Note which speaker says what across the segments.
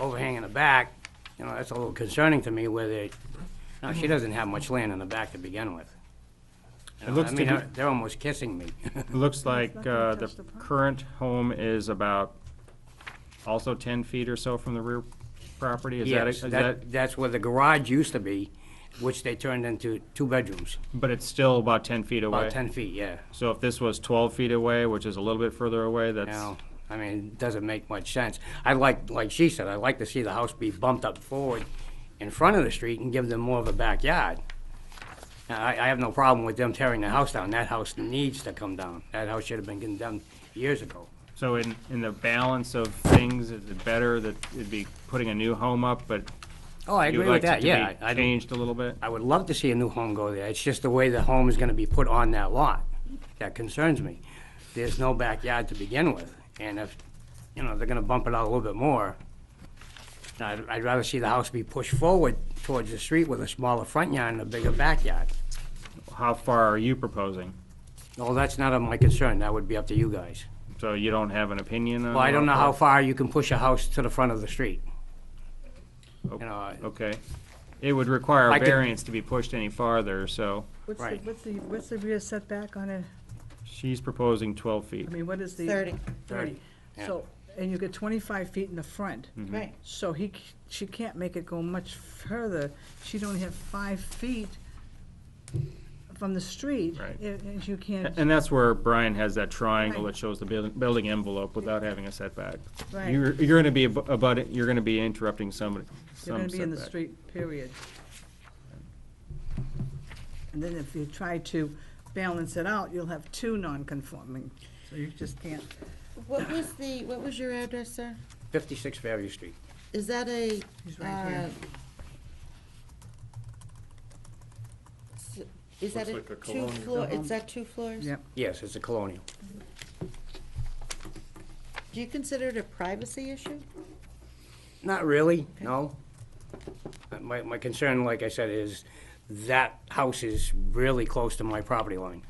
Speaker 1: overhang in the back, you know, that's a little concerning to me where they, no, she doesn't have much land in the back to begin with. You
Speaker 2: It
Speaker 1: know,
Speaker 2: looks
Speaker 1: I
Speaker 2: to
Speaker 1: mean,
Speaker 2: be-
Speaker 1: they're- they're almost kissing me.
Speaker 2: It looks like
Speaker 3: not gonna
Speaker 2: uh, the
Speaker 3: touch the property.
Speaker 2: current home is about also 10 feet or so from the rear property? Is that-
Speaker 1: Yes,
Speaker 2: is
Speaker 1: that, that's where the garage used to be, which they turned into two bedrooms,
Speaker 2: But it's still about 10 feet away?
Speaker 1: about ten feet, yeah.
Speaker 2: So if this was 12 feet away, which is a little bit further away, that's,
Speaker 1: Now, I mean, it doesn't make much sense. I like, like she said, I'd like to see the house be bumped up forward in front of the street and give them more of a backyard. Now, I, I have no problem with them tearing the house down. That house needs to come down. That house should have been condemned years ago.
Speaker 2: so in, in the balance of things, is it better that it'd be putting a new home up, but
Speaker 1: Oh, I
Speaker 2: you'd
Speaker 1: agree
Speaker 2: like
Speaker 1: with
Speaker 2: it
Speaker 1: that, yeah.
Speaker 2: to
Speaker 1: I- I
Speaker 2: be
Speaker 1: don't-
Speaker 2: changed a little bit?
Speaker 1: I would love to see a new home go there. It's just the way the home is gonna be put on that lot that concerns me. There's no backyard to begin with, and if, you know, they're gonna bump it out a little bit more, I'd, I'd rather see the house be pushed forward towards the street with a smaller front yard and a bigger backyard.
Speaker 2: How far are you proposing?
Speaker 1: Well, that's not of my concern. That would be up to you guys.
Speaker 2: So you don't have an opinion on?
Speaker 1: Well, I don't know
Speaker 2: or-
Speaker 1: how far you can push a house to the front of the street. You know,
Speaker 2: Okay. It would require
Speaker 1: I
Speaker 2: a
Speaker 1: could-
Speaker 2: variance to be pushed any farther, so
Speaker 3: What's the,
Speaker 1: Right.
Speaker 3: what's the, what's the rear setback on a,
Speaker 2: she's proposing 12 feet.
Speaker 3: I mean, what is the?
Speaker 4: 30,
Speaker 1: Thirty, yeah.
Speaker 3: So, and you get twenty-five feet in the front,
Speaker 2: Hmm.
Speaker 4: right.
Speaker 3: so he, c- she can't make it go much further. She'd only have five feet from the street.
Speaker 2: Right.
Speaker 3: a- And you
Speaker 2: A-
Speaker 3: can't,
Speaker 2: And that's where Brian has that triangle
Speaker 3: Right.
Speaker 2: that shows the building, building envelope without having a setback.
Speaker 3: Right.
Speaker 2: You're, you're gonna be ab- about, it- you're gonna be interrupting somebody,
Speaker 3: you're gonna
Speaker 2: some
Speaker 3: be in the
Speaker 2: setback.
Speaker 3: street, period. And then if you try to balance it out, you'll have two non-conforming, so you just can't.
Speaker 4: What was the, what was your address, sir?
Speaker 1: fifty-six Fairview Street.
Speaker 4: Is that a?
Speaker 3: He's right here.
Speaker 4: uh, s- Is that a
Speaker 5: Looks like a
Speaker 4: two
Speaker 5: colonial.
Speaker 4: floor, is that two floors?
Speaker 3: Yep.
Speaker 1: Yes, it's a colonial.
Speaker 4: Do you consider it a privacy issue?
Speaker 1: Not really, no. Uh, My, my concern, like I said, is that house is really close to my property line.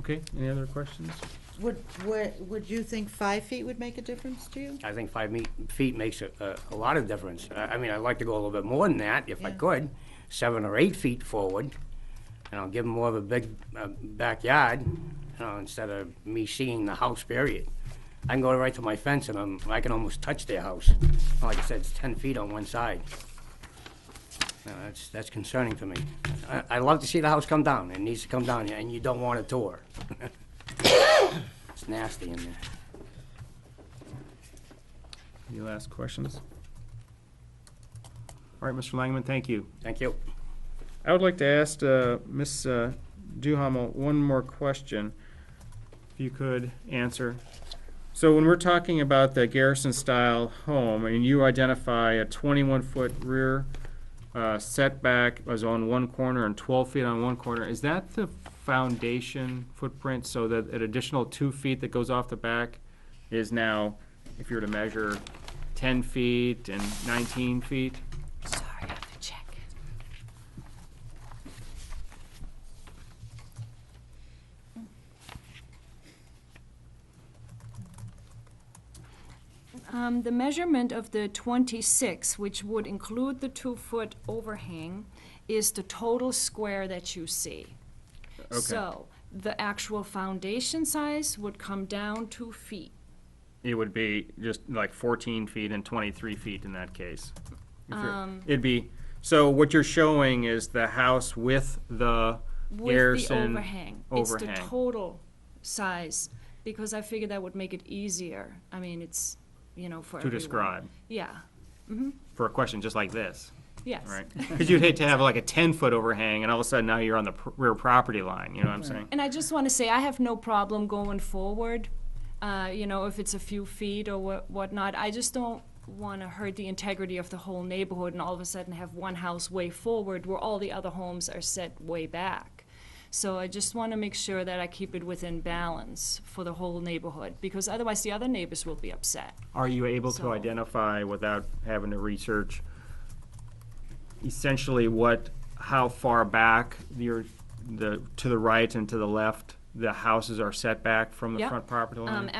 Speaker 2: Okay, any other questions?
Speaker 4: Would, would, would you think five feet would make a difference to you?
Speaker 1: I think five me- feet makes a, a- a lot of difference. I, I mean, I'd like to go a little bit more than that, if I
Speaker 4: Yeah.
Speaker 1: could, seven or eight feet forward. You know, give them more of a big uh, backyard, you know, instead of me seeing the house period. I can go right to my fence and I'm, I can almost touch their house. Like I said, it's ten feet on one side. You know, that's, that's concerning to me. I, I'd love to see the house come down. It needs to come down, and you don't want a tour. It's nasty in there.
Speaker 2: Any last questions? All right, Mr. Langman, thank you.
Speaker 1: Thank you.
Speaker 2: I would like to ask uh, Ms. uh, Duhamel one more question, if you could answer. So when we're talking about the Garrison-style home, and you identify a 21-foot rear uh, setback was on one corner and 12 feet on one corner, is that the foundation footprint so that an additional two feet that goes off the back is now, if you were to measure, 10 feet and 19 feet?
Speaker 6: Sorry, I have to check. Um, the measurement of the twenty-six, which would include the two-foot overhang, is the total square that you see.
Speaker 2: Okay.
Speaker 6: So, the actual foundation size would come down two feet.
Speaker 2: it would be just like 14 feet and 23 feet in that case. If you're-
Speaker 6: Um.
Speaker 2: It'd be, so what you're showing is the house with the
Speaker 6: With the
Speaker 2: Garrison
Speaker 6: overhang. It's the
Speaker 2: overhang.
Speaker 6: total size, because I figured that would make it easier. I mean, it's, you know, for
Speaker 2: To
Speaker 6: everyone.
Speaker 2: describe,
Speaker 6: Yeah,
Speaker 2: for a question just like this,
Speaker 6: yes.
Speaker 2: right? Because you'd hate to have like a 10-foot overhang and all of a sudden now you're on the pr- rear property line, you know what I'm saying?
Speaker 6: And I just want to say, I have no problem going forward, uh, you know, if it's a few feet or wha- whatnot. I just don't want to hurt the integrity of the whole neighborhood and all of a sudden have one house way forward where all the other homes are set way back. So I just want to make sure that I keep it within balance for the whole neighborhood, because otherwise the other neighbors will be upset.
Speaker 2: Are you able to
Speaker 6: So-
Speaker 2: identify without having to research essentially what, how far back your, the, to the right and to the left, the houses are set back from the
Speaker 6: Yep.
Speaker 2: front property line?
Speaker 6: Um,